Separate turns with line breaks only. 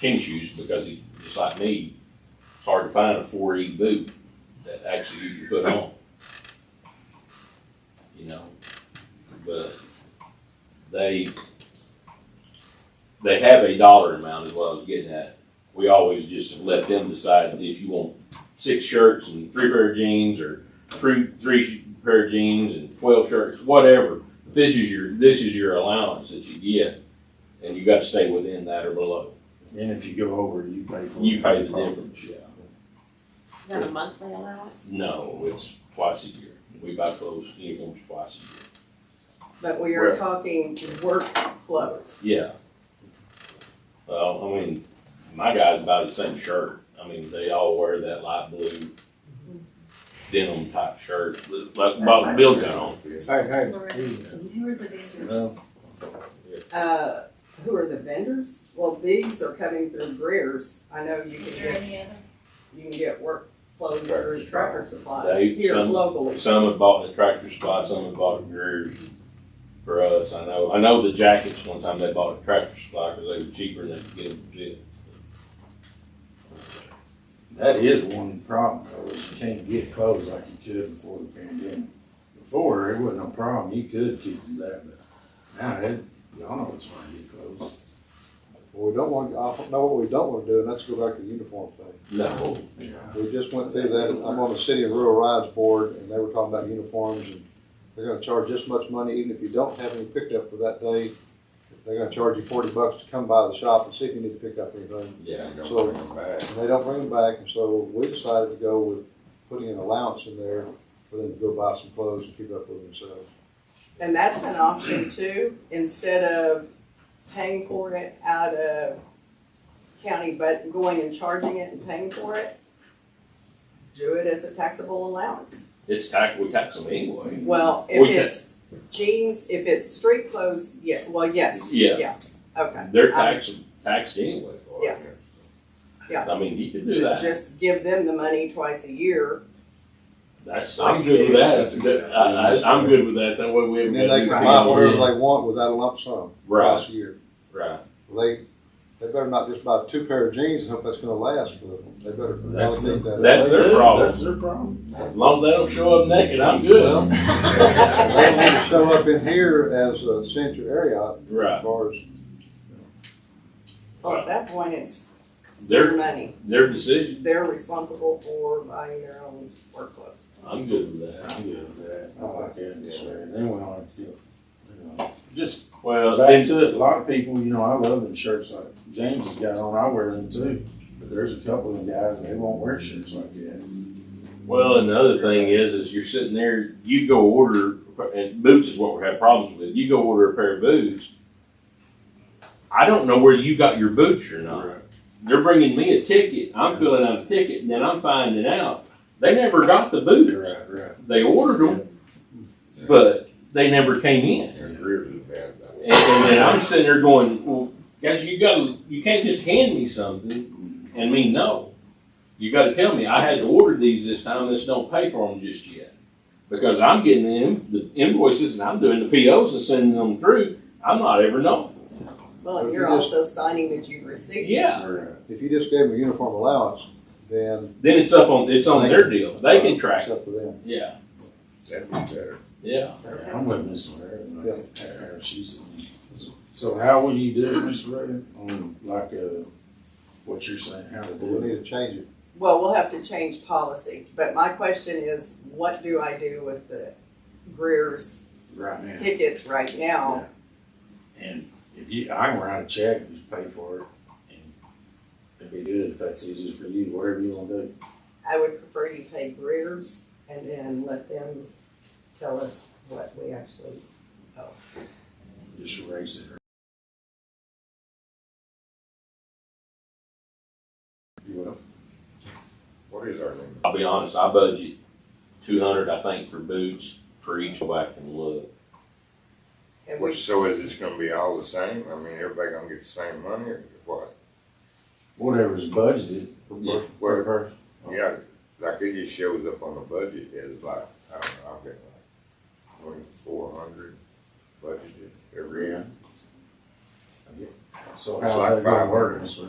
tennis shoes because he, just like me, it's hard to find a four E boot that actually you can put on. You know, but they, they have a dollar amount is what I was getting at. We always just let them decide if you want six shirts and three pair of jeans or three, three pair of jeans and twelve shirts, whatever. This is your, this is your allowance that you get and you gotta stay within that or below.
And if you go over, you pay for it.
You pay the difference, yeah.
Is that a monthly allowance?
No, it's twice a year. We buy clothes, uniforms twice a
But we
Right.
are talking work clothes.
year. Yeah. Well, I mean, my guys buy the same shirt. I mean, they all wear that light blue denim type shirt. That's about Bill's got on.
Hey, hey,
Lorraine.
hey,
Who are the vendors?
well,
Uh, who are the vendors? Well, these are coming through Greer's. I know you
Is
can
there
get,
any other?
you can get work clothes through Tractor Supply
They-
here
some-
locally.
Some have bought the tractor supply, some have bought it Greer's for us. I know, I know the jackets, one time they bought a tractor supply because they were cheaper and they could get them fit.
That is one problem, though, is you can't get clothes like you could before the pandemic. Before, it wasn't a problem, you could keep them there, but now, it, y'all know it's hard to get clothes.
we don't want, I know what we don't wanna do, and that's go back to the uniform thing.
No,
We just went through that, I'm on the city and rural rides board, and they were talking about uniforms, and they're gonna charge this much money, even if you don't have any pickup for that day. They're gonna charge you forty bucks to come by the shop and see if you need to pick up anything.
yeah.
So-
back.
And they don't bring them back, and so we decided to go with putting an allowance in there for them to go buy some clothes and keep up with themselves.
And that's an option too, instead of paying for it out of county, but going and charging it and paying for it. Do it as a taxable allowance.
It's tax, we tax them anyway.
Well,
We
if
can-
it's jeans, if it's street clothes, yeah, well, yes.
Yeah.
Yeah, okay.
They're taxed, taxed anyway. for it.
Yeah.
I mean, you could do that.
Just give them the money twice a year.
That's, I'm good with that. That's a good, I, I, I'm good with that. That way we
And
haven't.
then they can
got
buy
to-
whatever they want without a lump sum,
Right,
twice a year.
right.
They, they better not just buy two pair of jeans and hope that's gonna last for them, they better
That's
allocate that.
that's their problem.
That's their problem.
As long as they don't show up naked, I'm good.
Well, They don't want to show up in here as a central area as
Right.
far as,
Well, at that point, it's their
Their,
money.
their decision.
They're responsible for buying their own work clothes.
I'm good with that.
I'm good with that, I like that, that's right, then we don't have to do, you know, just
Well,
Back
then,
to it, a lot of people, you know, I love them shirts like James has got on, I wear them too. But there's a couple of guys, they won't wear shirts like that.
well, another thing is, is you're sitting there, you go order, and boots is what we're having problems with. You go order a pair of boots. I don't know where you got your boots or not. they're bringing me a ticket. I'm filling out a ticket, and then I'm finding out they never got the
You're
boots.
right, right.
They ordered them, but they never came in.
Yeah.
And, and then I'm sitting there going, "Well, guys, you got to you can't just hand me something and mean no. You got to tell me I had to order these this time. This don't pay for them just yet because I'm getting the, in, the invoices and I'm doing the POs and sending them through. I'm not ever known.
Well, and
If
you're
you just-
also signing that you've received.
Yeah.
Right.
if you just gave them a uniform allowance, then uh,
Then it's up on it's on their deal. They can track
it's
it.
up to them.
Yeah.
That'd be better.
Yeah.
Yeah, I'm with Miss Raven, like, uh, she's, so how would you do it, Miss Raven, on like, uh, what you're saying, how to
We
do it?
need to change it.
Well, we'll have to change policy, but my question is, what do I do with the Greer's
Right now.
tickets right now?
And if you, I can write a check and just pay for it, and it'd be good if that's easier for you, whatever you wanna do.
I would prefer you pay Greer's and then let them tell us what we actually
just raise it. You will.
What is our limit?
I'll be honest, I budget two hundred, I think, for boots for each. Go back and look.
and we
Which, so is this gonna be all the same? I mean, everybody gonna get the same money or what?
Whatever's budgeted.
Yeah.
Where Yeah, like it just shows up on the budget as like, I don't know, I've got like twenty-four hundred budgeted every year.
So
It's
how's
like
that gonna
five
work,
hundred.
Mr.